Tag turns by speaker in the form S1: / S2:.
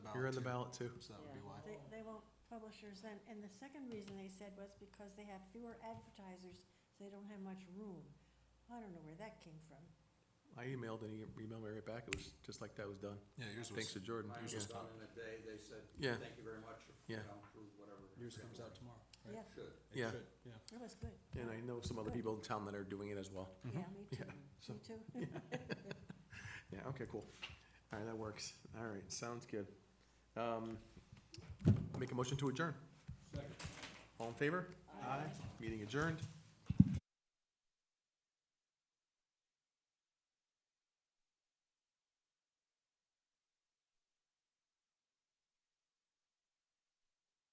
S1: You're on the ballot too.
S2: So that would be
S3: Yeah.
S2: why.
S4: They, they won't publishers then, and the second reason they said was because they have fewer advertisers, so they don't have much room. I don't know where that came from.
S1: I emailed and he emailed me right back. It was just like that was done.
S2: Yeah, yours was.
S1: Thanks to Jordan.
S5: Mine
S2: Yours
S1: Yeah.
S5: was
S2: was
S5: done in a day, they said,
S1: Yeah.
S5: thank you very much, you
S1: Yeah.
S5: know, approve whatever.
S2: Yours comes out tomorrow. right?
S4: Yeah,
S5: Should.
S2: It
S1: Yeah.
S2: should, Yeah.
S4: that was good.
S1: And I know some other people in town that are doing it as well.
S4: Yeah, me too,
S1: Yeah,
S4: me
S1: so-
S4: too.
S1: Yeah, okay, cool. All right, that works. All right, sounds good. Um, Make a motion to adjourn.
S5: Second.
S1: All in favor? Aye. Meeting adjourned.